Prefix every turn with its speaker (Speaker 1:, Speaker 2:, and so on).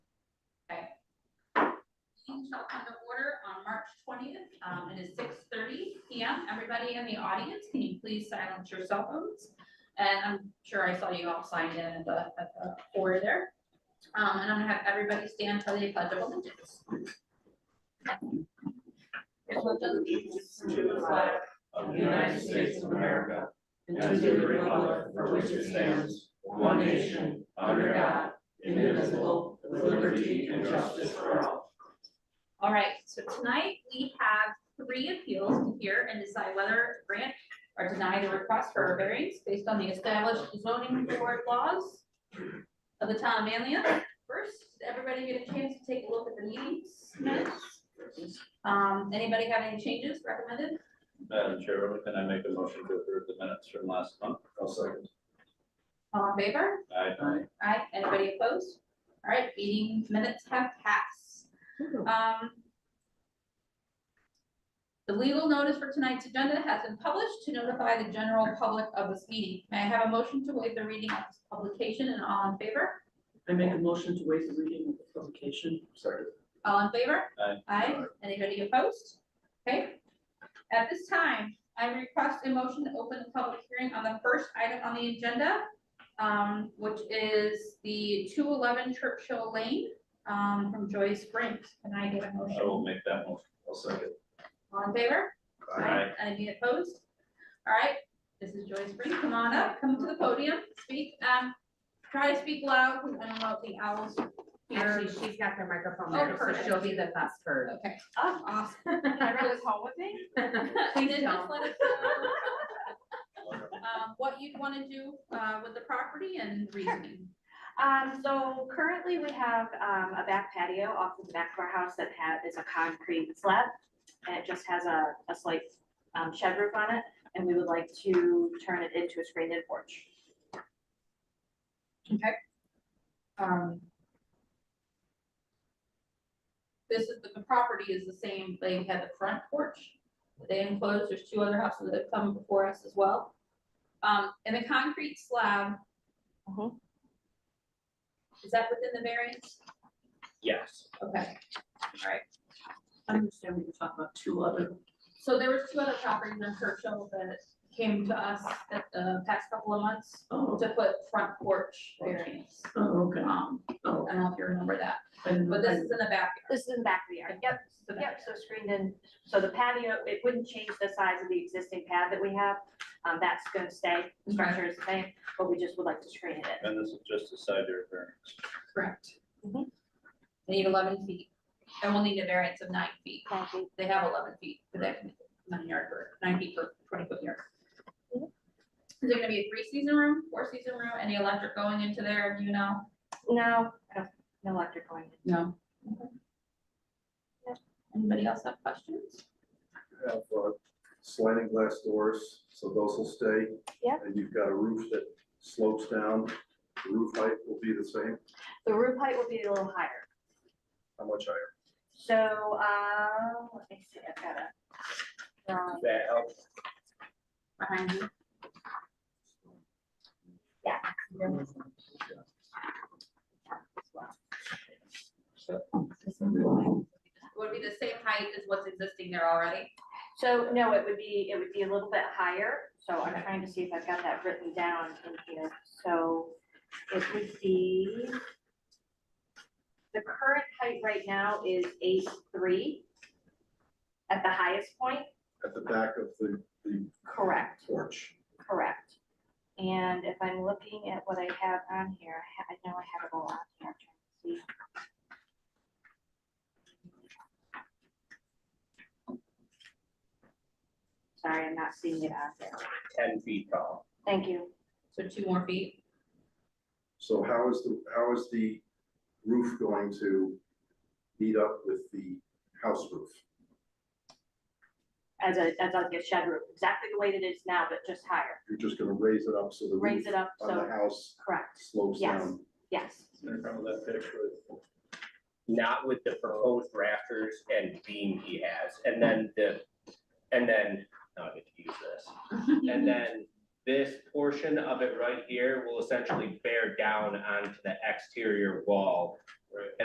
Speaker 1: shall come to order on March twentieth. Um, it is six thirty P M. Everybody in the audience, can you please silence your cell phones? And I'm sure I saw you all signed in at the, at the door there. Um, and I'm gonna have everybody stand for the pledge of allegiance.
Speaker 2: to the flag of the United States of America and to the republic for which it stands, one nation, under God, indivisible, with liberty and justice for all.
Speaker 1: All right, so tonight we have three appeals to hear and decide whether to grant or deny the request for a variance based on the established zoning board laws of the town of Manlius. First, did everybody get a chance to take a look at the meetings minutes? Um, anybody have any changes recommended?
Speaker 3: Madam Chair, can I make a motion to approve the minutes from last month? I'll second.
Speaker 1: All in favor?
Speaker 3: Aye.
Speaker 1: Aye, anybody opposed? All right, meeting minutes have passed. Um. The legal notice for tonight's agenda has been published to notify the general public of this meeting. May I have a motion to waive the reading of this publication and all in favor?
Speaker 2: I make a motion to waive the reading of the publication. Sorry.
Speaker 1: All in favor?
Speaker 3: Aye.
Speaker 1: Aye, anybody opposed? Okay. At this time, I request a motion to open a public hearing on the first item on the agenda, um, which is the two eleven Churchill Lane, um, from Joy Springs. Can I get a
Speaker 3: I
Speaker 1: motion?
Speaker 3: will make that motion. I'll second.
Speaker 1: All in favor?
Speaker 3: Aye.
Speaker 1: Any opposed? All right, this is Joy Springs. Come on up, come to the podium, speak, um, try to speak loud, because I don't know if the owls hear.
Speaker 4: Actually, she's got the microphone
Speaker 1: Oh,
Speaker 4: there, so
Speaker 1: perfect.
Speaker 4: she'll be the best heard.
Speaker 1: Okay, awesome. I read this whole thing.
Speaker 4: Please
Speaker 1: Then just
Speaker 4: don't.
Speaker 1: let us know, um, What you'd want to do uh, with the property and reasoning.
Speaker 5: Um, so currently we have, um, a back patio off of the back of our house that ha is a concrete slab. And it just has a, a slight, um, shed roof on it, and we would like to turn it into a screened-in porch.
Speaker 1: Um, This is, the property is the same, they had the front porch, that they enclosed, there's two other houses that have come before us as well. Um, And the concrete slab.
Speaker 4: Uh-huh.
Speaker 5: Mhm.
Speaker 1: Is that within the variance?
Speaker 3: Yes.
Speaker 1: Okay, all right.
Speaker 2: I understand we can talk about two other.
Speaker 1: So there was two other properties in Churchill that came to us at the past couple of months
Speaker 2: Oh,
Speaker 1: to put front porch variance.
Speaker 2: oh, okay.
Speaker 1: Um,
Speaker 2: Oh,
Speaker 1: I don't know if you remember that,
Speaker 2: I didn't know
Speaker 1: but this is in the back.
Speaker 5: This is in the back of the yard. Yep,
Speaker 1: It's the back.
Speaker 5: yep, so screened in, so the patio, it wouldn't change the size of the existing pad that we have. Um, that's gonna stay, the structure is the same, but we just would like to screen it in.
Speaker 3: And this is just a side yard variance.
Speaker 1: Correct. They
Speaker 5: Mhm.
Speaker 1: need eleven feet, and we'll need a variance of nine feet.
Speaker 5: Thank you.
Speaker 1: They have eleven feet, but they can, nine yard or nine feet for twenty foot yard. Is there gonna be a three season room, four season room, any electric going into there, do you know?
Speaker 5: No, I don't- no electric going.
Speaker 1: No.
Speaker 5: Yep.
Speaker 1: Anybody else have questions?
Speaker 6: have uh, sliding glass doors, so those will stay.
Speaker 5: Yeah.
Speaker 6: And you've got a roof that slopes down, The roof height will be the same,
Speaker 5: The roof height will be a little higher.
Speaker 6: how much higher?
Speaker 5: So, uh, let me see, I've got a. um,
Speaker 3: That helps.
Speaker 1: Behind you. Would be the same height as what's existing there already?
Speaker 5: So, no, it would be, it would be a little bit higher, so I'm trying to see if I've got that written down in here, so it would be. The current height right now is eight three. At the highest point,
Speaker 6: At the back of the, the
Speaker 5: correct,
Speaker 6: porch.
Speaker 5: correct. And if I'm looking at what I have on here, I ha- I know I have it all on here, I'm trying to see. Sorry, I'm not seeing it out there.
Speaker 3: Ten feet tall.
Speaker 5: Thank you.
Speaker 1: So two more feet,
Speaker 6: So how is the, how is the roof going to meet up with the house roof?
Speaker 5: As a, as like a shed roof, exactly the way that it is now, but just higher.
Speaker 6: You're just gonna raise it up so the
Speaker 5: Raise
Speaker 6: roof
Speaker 5: it up,
Speaker 6: on the
Speaker 5: so,
Speaker 6: house
Speaker 5: correct,
Speaker 6: slopes
Speaker 5: Yes.
Speaker 6: down.
Speaker 5: yes.
Speaker 3: Remember that picture?
Speaker 7: not with the proposed rafters and beam he has, and then the, and then, now I get to use this. And then this portion of it right here will essentially bear down onto the exterior wall.
Speaker 3: Right.